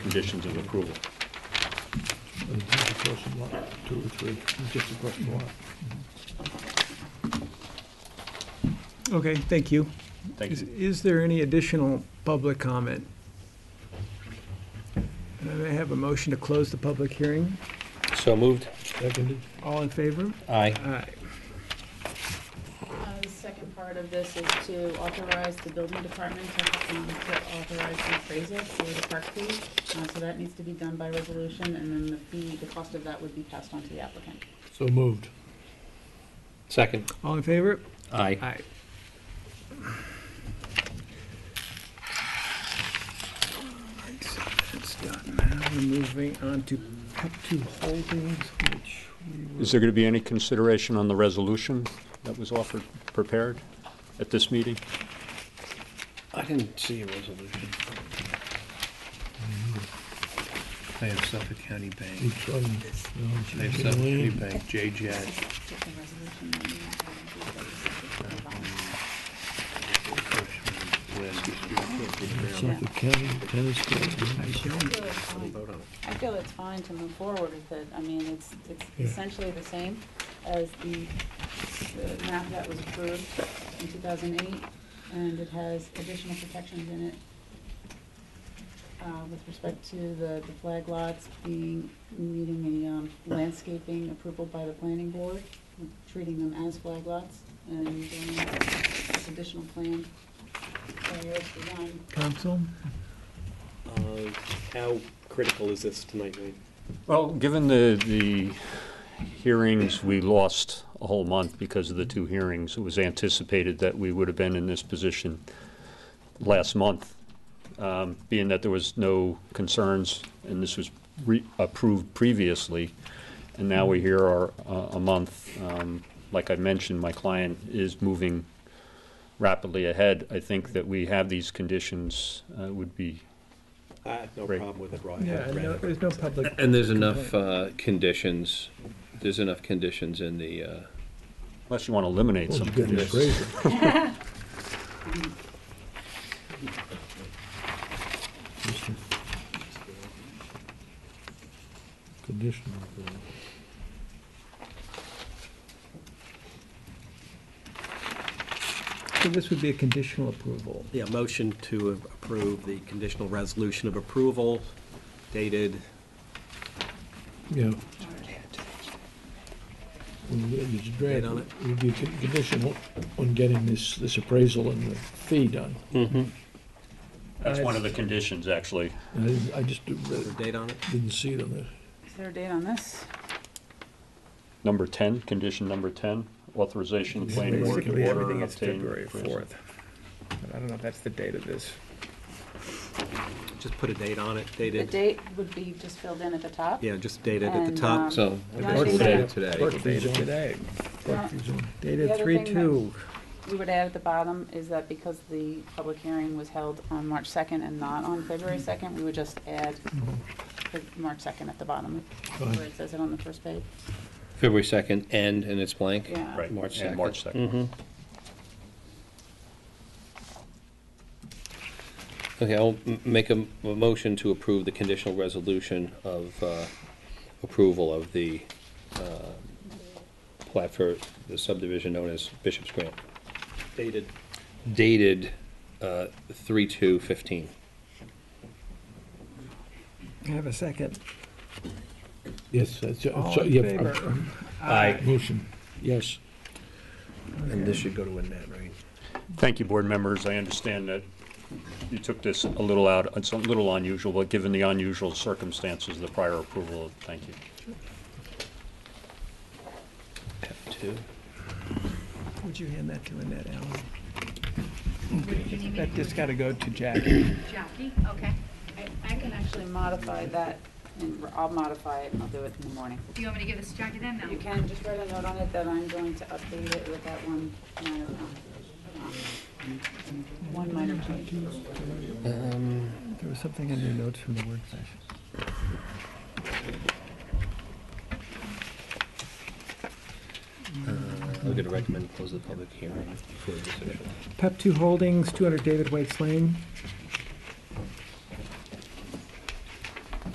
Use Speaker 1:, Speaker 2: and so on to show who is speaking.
Speaker 1: conditions of approval.
Speaker 2: It's just a question lot, two or three, it's just a question lot.
Speaker 3: Okay, thank you.
Speaker 1: Thank
Speaker 3: Is,
Speaker 1: you.
Speaker 3: is there any additional public comment? And I may have a motion to close the public hearing.
Speaker 4: So moved.
Speaker 2: Seconded,
Speaker 3: All in favor?
Speaker 4: Aye.
Speaker 3: Aye.
Speaker 5: Uh, The second part of this is to authorize the building department to um, to authorize the appraisal for the park fee. Uh, So that needs to be done by resolution, and then the fee, the cost of that would be passed on to the applicant.
Speaker 2: so moved.
Speaker 4: Second.
Speaker 3: All in favor?
Speaker 4: Aye.
Speaker 3: Aye. Alright, so that's done. Now we're moving on to Pep Two Holdings, which we were,
Speaker 1: Is there going to be any consideration on the resolution that was offered, prepared at this meeting?
Speaker 4: I didn't see a resolution.
Speaker 6: They have Suffolk County Bank.
Speaker 2: Each one, you know, it's
Speaker 6: They have
Speaker 2: taken
Speaker 6: Suffolk County
Speaker 2: away.
Speaker 6: Bank, JJAG.
Speaker 5: Get the resolution, and then we'll do the-
Speaker 2: Suffolk County Tennis Club.
Speaker 5: I feel it's
Speaker 6: um,
Speaker 5: fine. I feel it's fine to move forward with it. I mean, it's, it's
Speaker 2: Yeah.
Speaker 5: essentially the same as the, the map that was approved in two thousand eight, and it has additional protections in it uh, with respect to the, the flag lots being, needing a um, landscaping approval by the planning board, treating them as flag lots, and doing this additional plan. So it's designed
Speaker 3: council?
Speaker 7: How critical is this tonight, Wayne?
Speaker 1: Well, given the, the hearings, we lost a whole month because of the two hearings. It was anticipated that we would have been in this position last month, um, being that there was no concerns, and this was re- approved previously, and now we here are uh, a month. Um, Like I mentioned, my client is moving rapidly ahead. I think that we have these conditions uh, would be
Speaker 7: I have no
Speaker 1: Great.
Speaker 7: problem with it, Brian.
Speaker 3: Yeah, no, there's no public.
Speaker 6: And there's enough uh, conditions, there's enough conditions in the, uh,
Speaker 1: Unless you want to eliminate
Speaker 2: Well,
Speaker 1: some
Speaker 2: you got me
Speaker 1: conditions.
Speaker 2: crazy. Conditional. approval.
Speaker 3: So this would be a conditional approval.
Speaker 7: Yeah, motion to approve the conditional resolution of approval dated.
Speaker 2: Yeah. When you get this draft,
Speaker 7: Date on it?
Speaker 2: you do con- conditional on getting this, this appraisal and the fee done.
Speaker 1: That's one of the conditions, actually.
Speaker 2: I didn't- I just didn't
Speaker 7: Is there
Speaker 2: read-
Speaker 7: a date on it?
Speaker 2: didn't see it on there.
Speaker 5: Is there a date on this?
Speaker 1: Number 10, condition number 10, authorization of the planning board
Speaker 8: Basically,
Speaker 1: to order
Speaker 8: everything
Speaker 1: and
Speaker 8: is
Speaker 1: obtain.
Speaker 8: February
Speaker 1: appraisal.
Speaker 8: fourth. I don't know if that's the date of this.
Speaker 7: Just put a date on it,
Speaker 5: The
Speaker 7: dated,
Speaker 5: date would be just filled in at the top.
Speaker 7: yeah, just dated at the
Speaker 5: And,
Speaker 7: top.
Speaker 5: um,
Speaker 6: so.
Speaker 5: The only thing
Speaker 7: Dated
Speaker 5: that
Speaker 6: Today.
Speaker 8: What's the date of today?
Speaker 5: Well,
Speaker 2: It's on-
Speaker 5: The
Speaker 8: Dated
Speaker 5: other
Speaker 8: three
Speaker 5: thing that-
Speaker 8: two.
Speaker 5: we would add at the bottom is that because the public hearing was held on March 2nd and not on February 2nd, we would just add the March 2nd at the bottom, where it says it on the first page.
Speaker 6: February 2nd, and, and it's blank?
Speaker 5: Yeah.
Speaker 1: Right,
Speaker 6: March
Speaker 1: and
Speaker 6: 2nd.
Speaker 1: March 2nd.
Speaker 6: Okay, I'll m- make a, m- a motion to approve the conditional resolution of uh, approval of the uh, plat for the subdivision known as Bishop's Grant,
Speaker 7: Dated.
Speaker 6: dated uh, 3/2/15.
Speaker 3: Have a second.
Speaker 2: Yes, that's,
Speaker 3: All
Speaker 2: so,
Speaker 3: in
Speaker 2: yeah,
Speaker 3: favor?
Speaker 2: um,
Speaker 6: Aye.
Speaker 2: motion, yes.
Speaker 7: And this should go to Annette, right?
Speaker 1: Thank you, board members. I understand that you took this a little out, it's a little unusual, but given the unusual circumstances, the prior approval, thank you.
Speaker 6: Tab Two.
Speaker 3: Uh, Would you hand that to Annette Allen?
Speaker 8: That just gotta go to Jackie.
Speaker 5: Jackie, okay. I can actually modify that, and I'll modify it, and I'll do it in the morning.
Speaker 9: Do you want me to give this to Jackie then?
Speaker 5: You
Speaker 9: No.
Speaker 5: can just write a note on it that I'm going to update it with that one, uh, um, one minor change.
Speaker 3: There was something in your notes from the work session.
Speaker 6: I'll get a recommend, to close the public hearing for this issue.
Speaker 3: Pep Two Holdings, 200 David Waits Lane.